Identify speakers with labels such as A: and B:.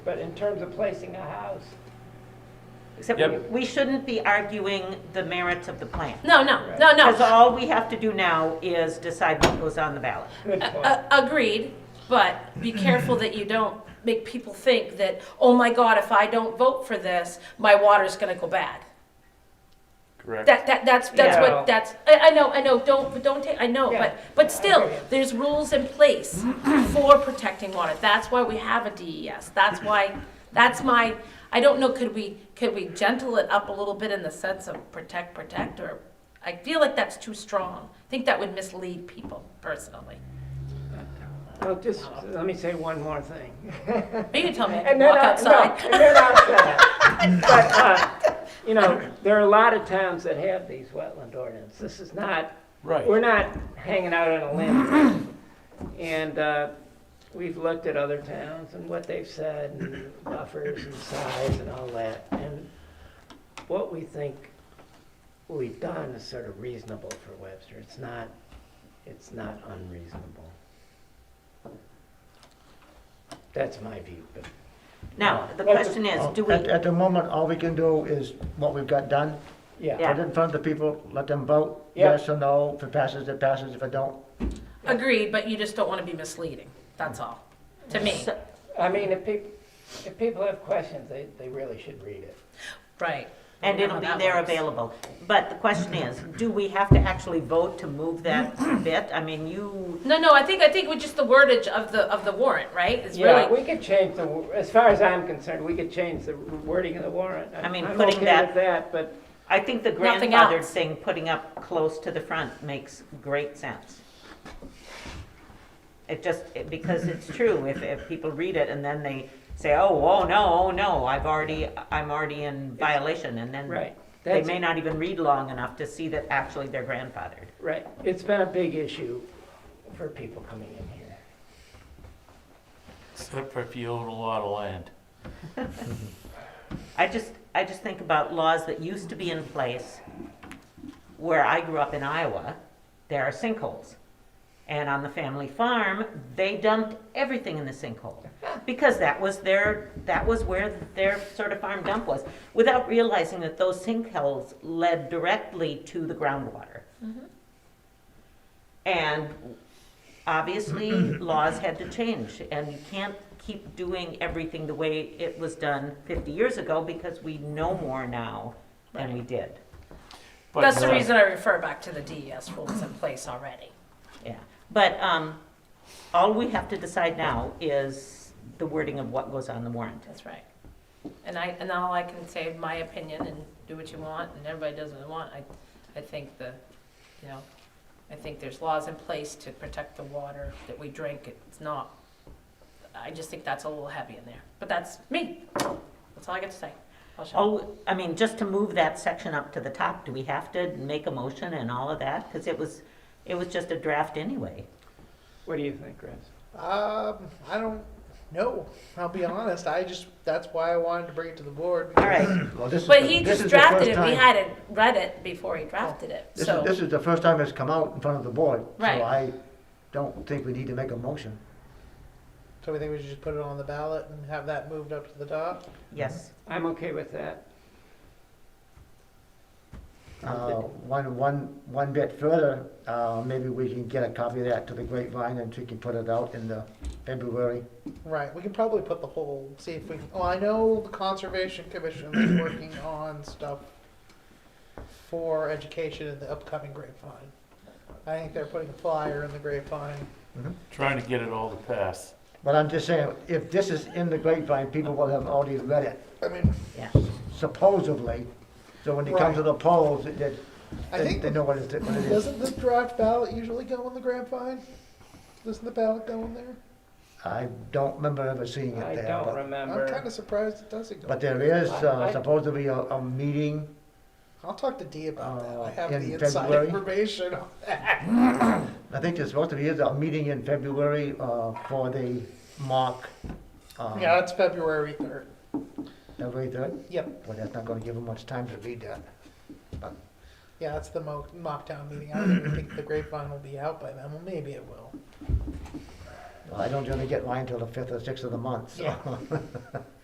A: but in terms of placing a house,
B: Except
C: Yep.
B: we- we shouldn't be arguing the merits of the plan.
D: No, no, no, no.
B: Because all we have to do now is decide what goes on the ballot.
A: good
D: A-
A: point.
D: a- Agreed, but be careful that you don't make people think that, oh my God, if I don't vote for this, my water's gonna go bad.
C: Correct.
D: That, that, that's, that's
A: Yeah.
D: what, that's, I, I know, I know, don't, but don't take, I know,
A: Yeah.
D: but, but
A: I
D: still,
A: agree.
D: there's rules in place for protecting water. That's why we have a DES. That's why, that's my, I don't know, could we, could we gentle it up a little bit in the sense of protect, protect, or, I feel like that's too strong. I think that would mislead people personally.
A: Well, just, let me say one more thing.
D: You can tell me I can
A: And then
D: walk
A: I- no,
D: outside.
A: And then outside. But, uh, you know, there are a lot of towns that have these wetland ordinances. This is not,
C: Right.
A: we're not hanging out on a limb. And uh, we've looked at other towns and what they've said, and buffers and size and all that. And what we think we've done is sort of reasonable for Webster. It's not, it's not unreasonable. That's my view, but
B: Now, the
A: Well,
B: question is, do we,
E: At, at the moment, all we can do is what we've got done.
A: yeah.
B: Yeah.
E: Put it in front of the people, let them vote,
A: Yeah.
E: yes or no, if it passes, it passes, if it don't,
D: Agreed, but you just don't want to be misleading. That's all, to me.
B: so-
A: I mean, if people, if people have questions, they, they really should read it.
D: Right.
B: and it'll be there available. But the question is, do we have to actually vote to move that bit? I mean, you,
D: No, no, I think, I think with just the wordage of the, of the warrant, right? It's
A: Yeah,
D: really,
A: we could change the, as far as I'm concerned, we could change the wording of the warrant.
B: I mean,
A: I'm
B: putting
A: okay
B: that-
A: with that, but
B: I think the
D: Nothing
B: grandfathered
D: else.
B: thing, putting up close to the front makes great sense. It just, it- because it's true, if, if people read it and then they say, oh, oh, no, oh, no, I've already, I'm already in violation, and then
A: Right.
B: they
A: That's-
B: may not even read long enough to see that actually they're grandfathered.
A: Right, it's been a big issue for people coming in here.
C: Except for if you own a lot of land.
B: I just, I just think about laws that used to be in place where I grew up in Iowa, there are sinkholes. And on the family farm, they dumped everything in the sinkhole because that was their, that was where their sort of farm dump was, without realizing that those sinkholes led directly to the groundwater. And obviously, laws had to change, and you can't keep doing everything the way it was done fifty years ago, because we know more now than we did,
C: But,
D: that's the
C: uh,
D: reason I refer back to the DES rules in place already.
B: yeah. But, um, all we have to decide now is the wording of what goes on the warrant.
D: That's right. And I, and all I can say, my opinion, and do what you want, and everybody does what they want, I, I think the, you know, I think there's laws in place to protect the water that we drink, it's not, I just think that's a little heavy in there, but that's me, that's all I got to say. I'll shut up.
B: Oh, I mean, just to move that section up to the top, do we have to make a motion and all of that? Because it was, it was just a draft anyway.
A: What do you think, Chris?
F: Um, I don't know. I'll be honest. I just that's why I wanted to bring it to the board.
B: All right,
E: well, this is.
D: But
E: the-
D: he
E: this
D: just
E: is the first
D: drafted it, we
E: time- Oh,
D: hadn't read it before he drafted it,
E: This
D: so.
E: is, this is the first time it's come out in front of the board, so
D: Right.
E: I don't think we need to make a motion.
F: So we think we should just put it on the ballot and have that moved up to the top.
B: yes.
A: I'm okay with that.
E: Uh, one, one, one bit further, uh, maybe we can get a copy of that to the grapevine and we can put it out in the February.
F: Right. We can probably put the whole. See if we. can Well, I know the conservation commission is working on stuff for education in the upcoming grapevine. I think they're putting a flyer in the grapevine.
C: Trying to get it all to pass.
E: But I'm just saying, if this is in the grapevine, people will have already read it.
F: I mean,
E: supposedly, so when it comes to the polls, it- it-
F: I
E: they,
F: think
E: they
F: the-
E: know what it is. What it is.
F: doesn't this draft ballot usually go in the grapevine? Doesn't the ballot go in there?
E: I don't remember ever seeing
A: I
E: it there,
A: don't
E: but,
A: remember.
F: I'm kind of surprised it doesn't go.
E: but there is
A: I- I-
E: uh, supposed to be a, a meeting,
F: I'll talk to Dee about that.
E: Uh,
F: I have
E: in
F: the inside
E: February?
F: information on that.
E: I think there's supposed to be a meeting in February, uh, for the mock, um,
F: Yeah, it's February 3rd.
E: February third.
F: Yep.
E: Well, that's not gonna give them much time to read that.
F: Yeah, that's the mo- mock town meeting. I don't even think the grapevine will be out by then. Well, maybe it will.
E: I don't generally get mine till the fifth or sixth of the month, so.